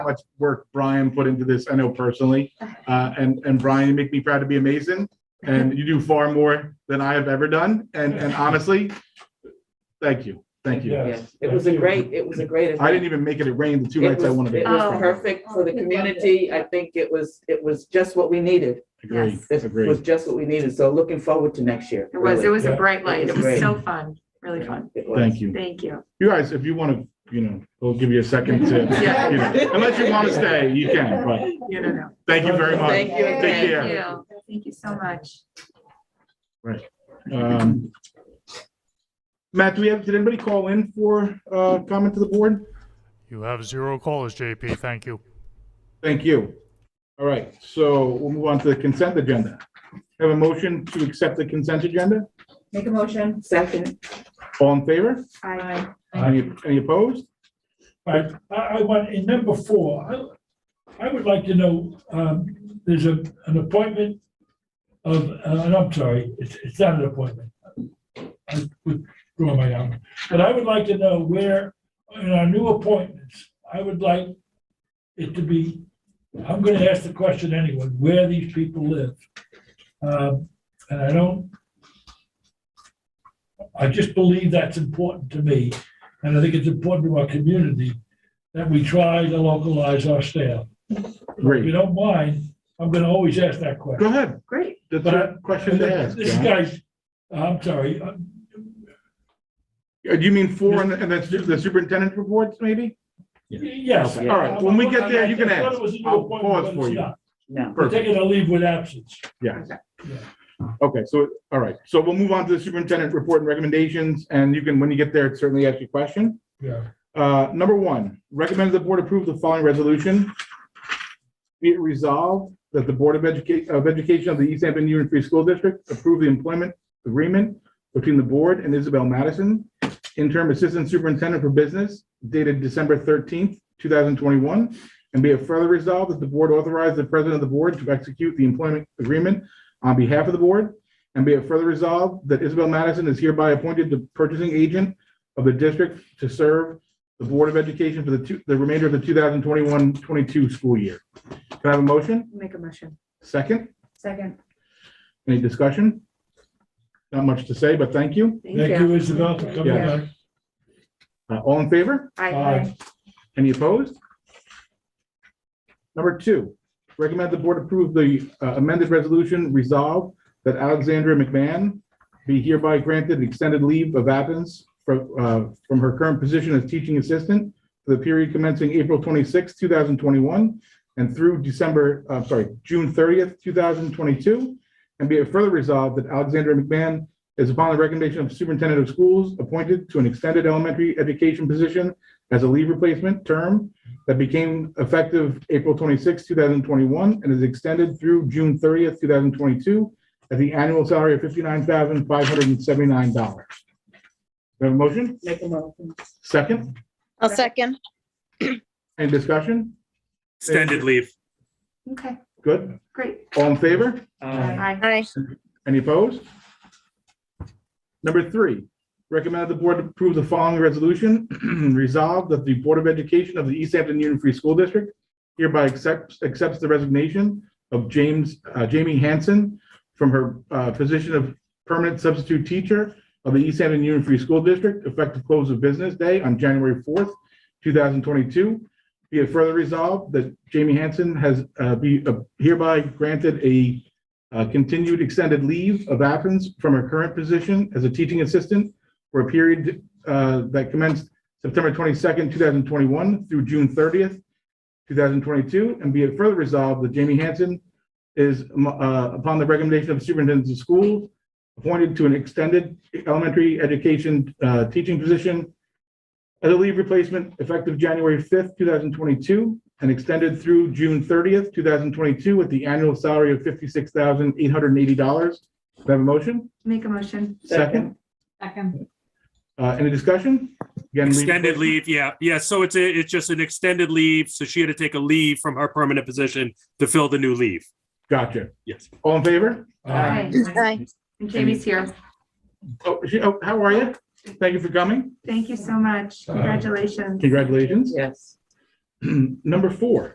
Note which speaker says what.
Speaker 1: how much work Brian put into this, I know personally. Uh, and, and Brian, you make me proud to be a Mason, and you do far more than I have ever done. And, and honestly, thank you, thank you.
Speaker 2: Yeah.
Speaker 3: Yeah, it was a great, it was a great.
Speaker 1: I didn't
Speaker 3: event.
Speaker 1: even make it, it rained the two
Speaker 3: It
Speaker 1: nights I
Speaker 3: was,
Speaker 1: wanted
Speaker 3: it
Speaker 1: to.
Speaker 3: was
Speaker 4: Oh.
Speaker 3: perfect for the
Speaker 4: Oh, we loved
Speaker 3: community. I think it was, it was just what we needed.
Speaker 1: Agree,
Speaker 3: This
Speaker 1: agree.
Speaker 3: was just what we needed. So looking forward to next year.
Speaker 4: It was, it was a
Speaker 2: Yeah.
Speaker 4: bright light. It was
Speaker 3: Great.
Speaker 4: so fun, really fun.
Speaker 1: Thank you.
Speaker 4: Thank you.
Speaker 1: You guys, if you want to, you know, we'll give you a second to,
Speaker 4: Yeah.
Speaker 1: you know, unless you want to stay, you can, but
Speaker 4: You don't know.
Speaker 1: thank you very much.
Speaker 3: Thank you.
Speaker 1: Take care.
Speaker 4: Thank you. Thank you so much.
Speaker 1: Um, Matt, do we have, did anybody call in for uh comment to the board?
Speaker 2: You have zero callers, JP. Thank you.
Speaker 1: Thank you. All right, so we'll move on to the consent agenda. Have a motion to accept the consent agenda?
Speaker 5: Make a motion.
Speaker 3: Second,
Speaker 1: All in favor?
Speaker 4: I,
Speaker 1: Any any opposed?
Speaker 6: Right, I, I want, in number four, I, I would like to know, um, there's a, an appointment of, uh, and I'm sorry, it's, it's not an appointment. I withdraw my argument, but I would like to know where, in our new appointments, I would like it to be, I'm gonna ask the question anyway, where these people live. Um, and I don't, I just believe that's important to me. And I think it's important to our community that we try to localize our staff. If you
Speaker 1: Great,
Speaker 6: don't mind, I'm gonna always ask that
Speaker 1: go
Speaker 6: question.
Speaker 1: ahead.
Speaker 4: great.
Speaker 1: That's
Speaker 6: But I-
Speaker 1: a question to ask.
Speaker 6: This
Speaker 1: John.
Speaker 6: guy's, I'm sorry, uh,
Speaker 1: Uh, You mean for, and and that's ju- the superintendent reports, maybe?
Speaker 6: yes.
Speaker 1: Okay, all right, when we get there, you can
Speaker 6: I thought
Speaker 1: ask.
Speaker 6: it was a new
Speaker 1: I'll
Speaker 6: appointment,
Speaker 1: pause
Speaker 6: but
Speaker 1: for
Speaker 6: it's
Speaker 1: you.
Speaker 6: not.
Speaker 3: no.
Speaker 6: We're
Speaker 1: Perfect,
Speaker 6: taking a leave with absence.
Speaker 1: yes.
Speaker 6: Yeah.
Speaker 1: Okay, so, all right, so we'll move on to the superintendent report and recommendations, and you can, when you get there, certainly ask your question.
Speaker 6: Yeah.
Speaker 1: Uh, number one, recommend the board approve the following resolution. Be it resolved that the Board of Education, of Education of the East Hampton Union Free School District approve the employment agreement between the board and Isabel Madison, interim assistant superintendent for business dated December thirteenth, two thousand twenty-one. And be it further resolved that the board authorize the president of the board to execute the employment agreement on behalf of the board. And be it further resolved that Isabel Madison is hereby appointed the purchasing agent of the district to serve the Board of Education for the two, the remainder of the 2021-22 school year. Can I have a motion?
Speaker 4: Make a motion.
Speaker 1: Second?
Speaker 5: Second.
Speaker 1: Any discussion? Not much to say, but thank you.
Speaker 4: Thank
Speaker 6: Thank
Speaker 4: you.
Speaker 6: you, Isabel, for coming
Speaker 1: Yeah.
Speaker 6: back.
Speaker 1: Uh, All in favor?
Speaker 4: I,
Speaker 6: Aye.
Speaker 1: Any opposed? Number two, recommend the board approve the uh, amended resolution resolve that Alexandra McMahon be hereby granted an extended leave of absence from, uh, from her current position as teaching assistant for the period commencing April 26, 2021, and through December, i sorry, June 30th, 2022. And be it further resolved that Alexandra McMahon is upon the recommendation of superintendent of schools appointed to an extended elementary education position as a leave replacement term that became effective April 26, 2021, and is extended through June 30th, 2022, at the annual salary of $59,579. Do I have a motion?
Speaker 3: Make a motion.
Speaker 1: Second?
Speaker 7: I'll second.
Speaker 1: Any discussion?
Speaker 8: Extended leave.
Speaker 5: Okay,
Speaker 1: Good.
Speaker 5: great.
Speaker 1: All in favor?
Speaker 5: Aye.
Speaker 3: Aye.
Speaker 7: Aye.
Speaker 1: Any opposed? Number three, recommend the board approve the following resolution. Resolved that the Board of Education of the East Hampton Union Free School District hereby accepts, accepts the resignation of James, uh, Jamie Hanson from her uh, position of permanent substitute teacher of the East Hampton Union Free School District effective close of business day on January 4th, 2022. Be it further resolved that Jamie Hanson has uh, be uh, hereby granted a uh, continued extended leave of absence from her current position as a teaching assistant for a period uh, that commenced September 22nd, 2021 through June 30th, 2022, and be it further resolved that Jamie Hanson is, um, uh, upon the recommendation of superintendents of schools, appointed to an extended elementary education uh, teaching position as a leave replacement effective January 5th, 2022, and extended through June 30th, 2022, with the annual salary of $56,880. Do I have a motion?
Speaker 4: make a motion.
Speaker 1: Second?
Speaker 5: Second.
Speaker 1: Uh, Any discussion? Again, leave-
Speaker 8: Extended leave, yeah, yeah. So it's a, it's just an extended leave. So she had to take a leave from her permanent position to fill the new leave.
Speaker 1: Gotcha.
Speaker 8: Yes.
Speaker 1: All in favor?
Speaker 6: Aye.
Speaker 7: Aye.
Speaker 4: And Jamie's here.
Speaker 1: Oh, she- oh, How are you? Thank you for coming.
Speaker 4: Thank you so much. Congratulations.
Speaker 1: Congratulations.
Speaker 3: Yes.
Speaker 1: Number four,